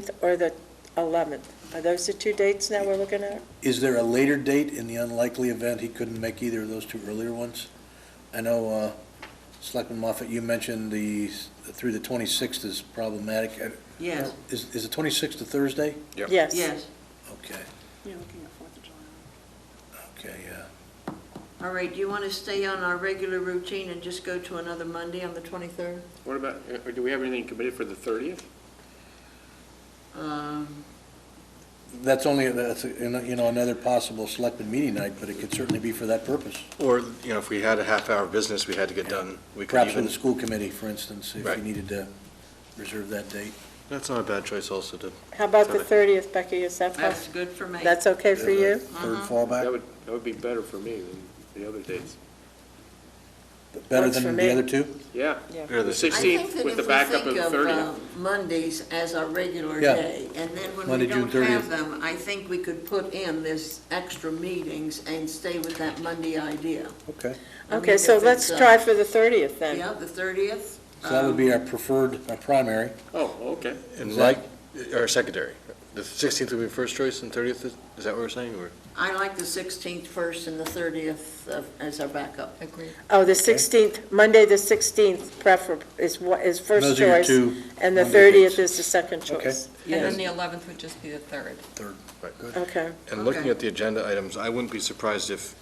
15th or the 11th. Are those the two dates now we're looking at? Is there a later date in the unlikely event he couldn't make either of those two earlier ones? I know, uh, Selectman Moffett, you mentioned the, through the 26th is problematic. Uh, Yes, Is, is the 26th a Thursday? Yep. Yes. yes. Okay, You're looking at Fourth of July. okay, yeah. All right, do you want to stay on our regular routine and just go to another Monday on the 23rd? What about, uh, do we have anything committed for the 30th? Uh, Um, That's only, that's, you know, you know, another possible Selectman meeting night, but it could certainly be for that purpose. Or, you know, if we had a half-hour business we had to get done, we could Perhaps with even, the school committee, for instance, if Right. you needed to reserve that date. that's not a bad choice also to, How about the 30th, Becky? Is that That's possible? good for me. That's okay for you? Uh-huh. Third That fallback, would, that would be better for me than the other dates. better Works for than me. the other two? Yeah. Yeah. Better The than 16th. 16th with the backup of the I think that if we think of 30th. uh, Mondays as our regular Yeah. day, and then when we Monday, June don't have 30th. them, I think we could put in this extra meetings and stay with that Monday idea. Okay, I Okay, mean, so if let's it's, uh, try for the 30th then. Yeah, the um, 30th? so that would be our preferred, our primary. Oh, okay. and Is that- like, uh, or secondary. The 16th would be first choice and 30th, is is that what we're saying, or? I like the 16th first and the 30th of- as our backup. Agreed. Oh, the 16th, Monday, the 16th prefer, is what, is first Those are your choice. two And the Monday 30th dates. is the second choice. And then the 11th would just be the 3rd. Third. Right. Okay. And looking Okay. at the agenda items, I wouldn't be surprised if,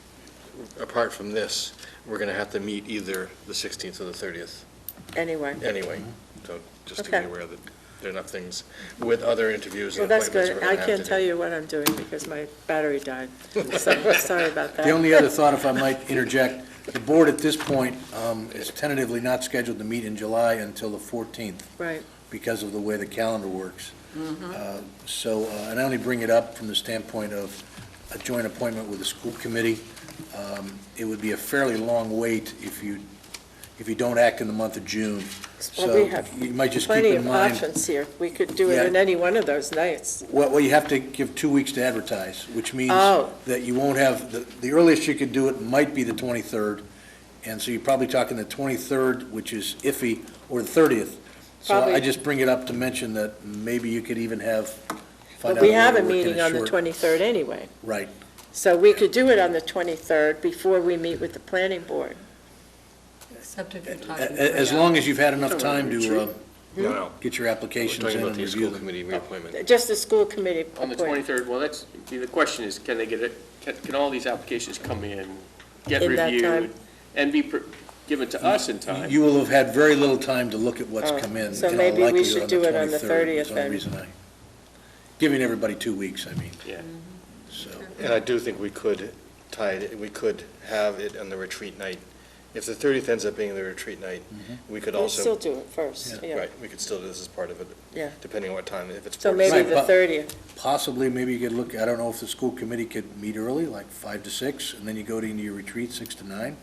apart from this, we're going to have to meet either the 16th or the 30th Anyway, anyway. So just to Okay. be aware that there are enough things with other interviews well, and that's good. appointments that we're going I to have to do. can't tell you what I'm doing because my battery died. So, sorry about that. The only other thought, if I might interject, the board at this point um, is tentatively not scheduled to meet in July until the 14th Right. Mm-hmm. because of the way the calendar works. Uh, So, uh, and I only bring it up from the standpoint of a joint appointment with the school committee. Um, It would be a fairly long wait if you, if you don't act in the month of June. Well, So we have you might just keep plenty in of mind, options here. We could do it Yeah. in any one of those nights. well, well, you have to give two weeks to advertise, which means Oh. that you won't have, the- the earliest you could do it might be the 23rd, and so you're probably talking the 23rd, which is iffy, or the 30th. So I Probably. just bring it up to mention that maybe you could even have, find But out. we have a whether uh, we're kinda meeting on the short. 23rd anyway. Right, So we could do it on the 23rd before we meet with the planning board. Except if you're A- talking. a- as three long hours. as you've had enough time to uh, No, no, get your we're applications talking in about and the review school them. Oh. committee reappointment. Just the school committee On the appointment. 23rd, well, that's, the question is, can they get it, can, can all these applications come in, get In that time? reviewed, and be pre- given to us in time? You will have had very little time to look at what's Oh, come in. so in all maybe we likelihood, should do it on the 23rd is 30th the then. reason I- Giving everybody two weeks, I mean, Yeah. so. And I do think we could tie it, we could have it on the retreat night. If the 30th ends up being the retreat night, Mm-hmm. we could We'll still also, uh, do it first, yeah. right, we could still do this as part of it, Yeah. depending on what time, if it's. So four to maybe six. the but- 30th. Possibly, maybe you could look, I don't know if the school committee could meet early, like five to six, and then you go to into your retreat, six to nine.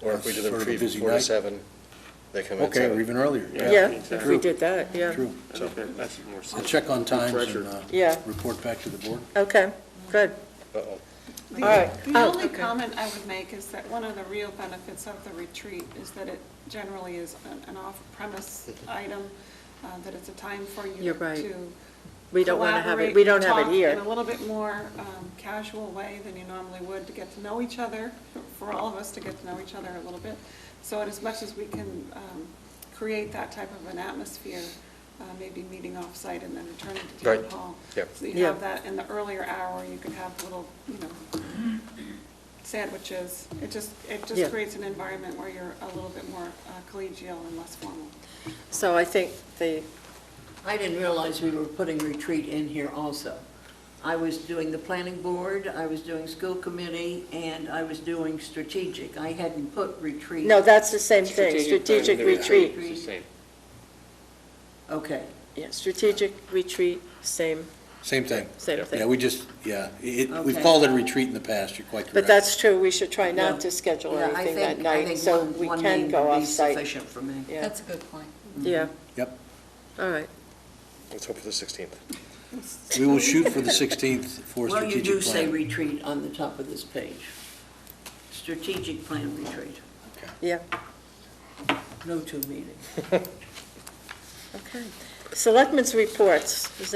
Or if we do the Sort of a retreat from busy four to night. seven, they Oh, come in at Okay, or seven. even earlier. Yeah, if exactly. we did that, yeah. True. I think that- That's more. I'll check on times Pressure. and uh, Yeah. report back to the board. Okay, good. Uh-oh. All right. The Oh, only okay. comment I would make is that one of the real benefits of the retreat is that it generally is an- an off-premise item, uh, that it's a time for you to. You're right. We don't want to have it, we don't collaborate, have it talk here. In a little bit more um, casual way than you normally would, to get to know each other, for all of us to get to know each other a little bit. So in as much as we can um, create that type of an atmosphere, uh, maybe meeting off-site and then returning to town Right. hall. Yep. So you Yeah. have that in the earlier hour, you could have little, you know, sandwiches. It just, it Yeah. just creates an environment where you're a little bit more uh, collegial and less formal. So I think the, I didn't realize we were putting retreat in here also. I was doing the planning board, I was doing school committee, and I was doing strategic. I hadn't put retreat. no, that's the same thing, planning strategic and retreat. It's the same. Okay. Yeah, strategic retreat, same, Same thing. same Yeah, thing. we just, yeah, it, we've Okay. called it a retreat in the past, you're quite correct. But that's true, we should try Yeah. not to schedule Yeah, I anything that think- I night, think so one- we one can name go would be off-site. Sufficient for me. Yeah, That's a good point. yeah, Yep. all right. Let's hope for the 16th. We will shoot for the 16th for Well, you do strategic say plan. retreat on the top of this page. Strategic plan retreat, Yeah, no two meetings. okay. Selectmen's reports, Does